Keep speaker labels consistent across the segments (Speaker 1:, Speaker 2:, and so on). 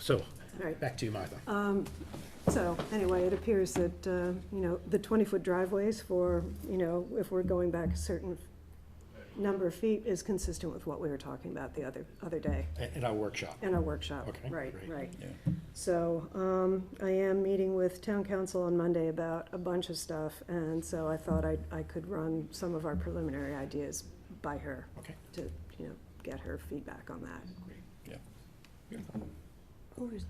Speaker 1: So,
Speaker 2: Right.
Speaker 1: back to you, Martha.
Speaker 2: So, anyway, it appears that, uh, you know, the 20-foot driveways for, you know, if we're going back a certain number of feet is consistent with what we were talking about the other, other day
Speaker 1: A- In our workshop.
Speaker 2: in our workshop.
Speaker 1: Okay,
Speaker 2: Right,
Speaker 1: great.
Speaker 2: right.
Speaker 3: Yeah.
Speaker 2: So, um, I am meeting with town council on Monday about a bunch of stuff, and so I thought I, I could run some of our preliminary ideas by her
Speaker 1: Okay.
Speaker 2: to, you know, get her feedback on that.
Speaker 4: Who is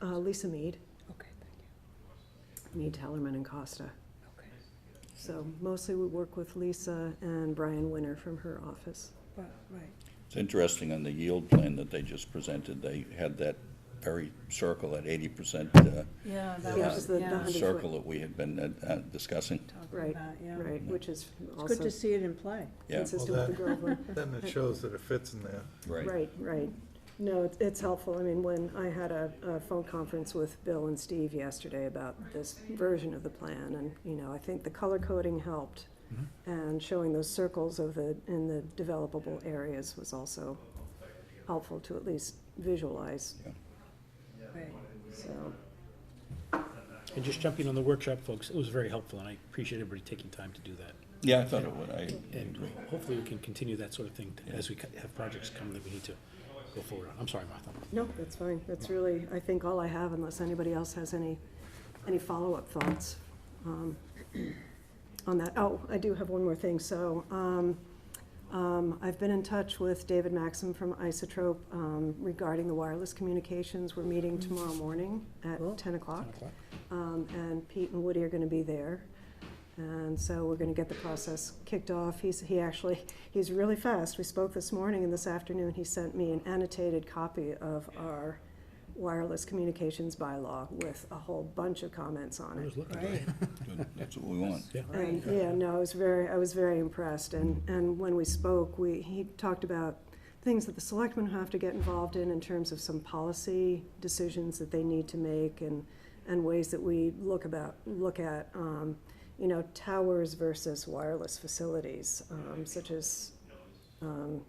Speaker 4: that?
Speaker 2: Uh, Lisa Mead,
Speaker 4: Okay, thank
Speaker 2: Mead, Tellerman, and Costa.
Speaker 4: you. Okay.
Speaker 2: So mostly we work with Lisa and Brian Winter from her office.
Speaker 4: Right, right.
Speaker 3: It's interesting, on the yield plan that they just presented, they had that very circle at eighty percent uh,
Speaker 4: Yeah, that
Speaker 2: Yeah, just
Speaker 4: was,
Speaker 2: the- the
Speaker 4: yeah,
Speaker 2: hundred-
Speaker 3: circle that we had been uh, uh, discussing.
Speaker 2: Right,
Speaker 4: talking about, yeah.
Speaker 2: right, which is
Speaker 4: It's good
Speaker 2: also
Speaker 4: to see it in play.
Speaker 3: Yeah,
Speaker 2: consistent with the Groveland.
Speaker 5: Then it shows that it fits in there.
Speaker 3: right.
Speaker 2: Right, right. No, it's- it's helpful. I mean, when I had a, a phone conference with Bill and Steve yesterday about this version of the plan, and, you know, I think the color coding helped.
Speaker 3: Mm-hmm.
Speaker 2: And showing those circles of the, in the developable areas was also helpful to at least visualize,
Speaker 4: Right.
Speaker 2: so.
Speaker 1: And just jumping on the workshop, folks, it was very helpful, and I appreciate everybody taking time to do that.
Speaker 3: Yeah, I thought it would, I,
Speaker 1: And hopefully we can continue that sort of thing as we co- have projects come that we need to go forward on. I'm sorry, Martha.
Speaker 2: No, that's fine. That's really, I think, all I have unless anybody else has any, any follow-up thoughts um, on that. Oh, I do have one more thing. So um, um, I've been in touch with David Maxim from Isotrope um, regarding the wireless communications. We're meeting tomorrow morning at
Speaker 4: Cool.
Speaker 2: 10 o'clock.
Speaker 1: o'clock.
Speaker 2: Um, And Pete and Woody are going to be there. And so we're going to get the process kicked off. He's, he actually, he's really fast. We spoke this morning and this afternoon, he sent me an annotated copy of our wireless communications bylaw with a whole bunch of comments on
Speaker 1: I
Speaker 2: it.
Speaker 1: was looking.
Speaker 4: Right.
Speaker 3: good, that's what we want.
Speaker 1: Yeah.
Speaker 2: And, yeah, no, I was very, I was very impressed, and, and when we spoke, we, he talked about things that the selectmen have to get involved in, in terms of some policy decisions that they need to make, and, and ways that we look about, look at, um, you know, towers versus wireless facilities, um, such as, um,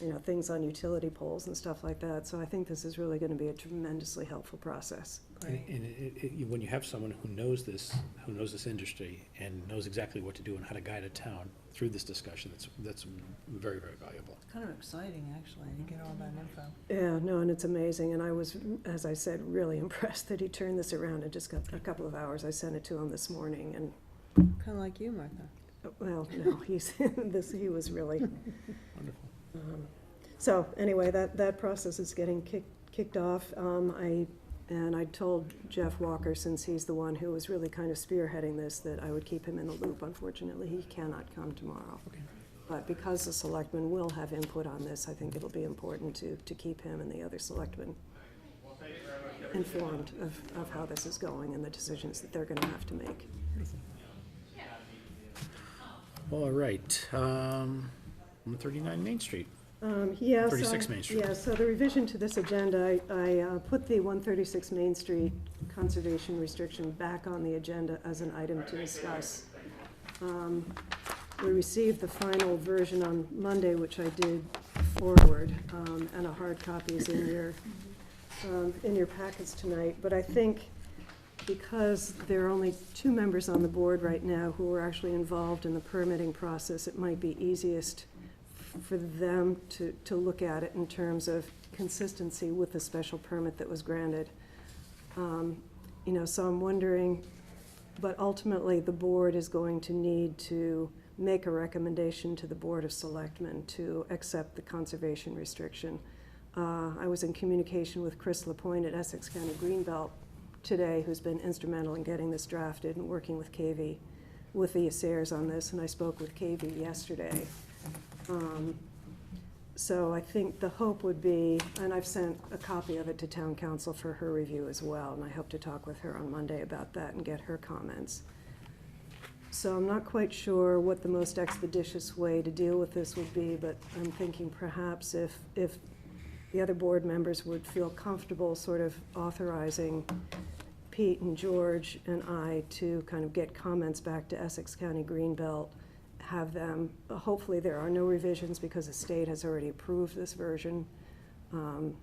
Speaker 2: you know, things on utility poles and stuff like that, so I think this is really gonna be a tremendously helpful process.
Speaker 1: And, and it, it, you- when you have someone who knows this, who knows this industry and knows exactly what to do and how to guide a town through this discussion, that's, that's very, very valuable.
Speaker 4: Kind of exciting, actually, to get all that info.
Speaker 2: Yeah, no, and it's amazing, and I was, as I said, really impressed that he turned this around in just got a couple of hours. I sent it to him this morning, and,
Speaker 4: Kind of like you, Martha.
Speaker 2: well, no, he's, this, he was really, um,
Speaker 1: Wonderful.
Speaker 2: so, anyway, that, that process is getting kicked, kicked off. Um, I, and I told Jeff Walker, since he's the one who was really kind of spearheading this, that I would keep him in the loop. Unfortunately, he cannot come tomorrow.
Speaker 1: Okay.
Speaker 2: But because the selectmen will have input on this, I think it'll be important to, to keep him and the other selectmen informed of, of how this is going and the decisions that they're gonna have to make.
Speaker 1: All right, um, one thirty-nine Main Street.
Speaker 2: Um, yeah, so
Speaker 1: 36
Speaker 2: I-
Speaker 1: Main Street.
Speaker 2: Yeah, so the revision to this agenda, I, I uh, put the one thirty-six Main Street conservation restriction back on the agenda as an item to discuss. Um, We received the final version on Monday, which I did forward, um, and a hard copy is in your, um, in your packets tonight, but I think because there are only two members on the board right now who are actually involved in the permitting process, it might be easiest for them to, to look at it in terms of consistency with the special permit that was granted. Um, You know, so I'm wondering, but ultimately, the board is going to need to make a recommendation to the Board of Selectmen to accept the conservation restriction. Uh, I was in communication with Chris Lapointe at Essex County Greenbelt today, who's been instrumental in getting this drafted and working with KV, with the Assayers on this, and I spoke with KV yesterday. Um, So I think the hope would be, and I've sent a copy of it to town council for her review as well, and I hope to talk with her on Monday about that and get her comments. So I'm not quite sure what the most expeditious way to deal with this would be, but I'm thinking perhaps if, if the other board members would feel comfortable sort of authorizing Pete and George and I to kind of get comments back to Essex County Greenbelt, have them, hopefully there are no revisions because the state has already approved this version. Um,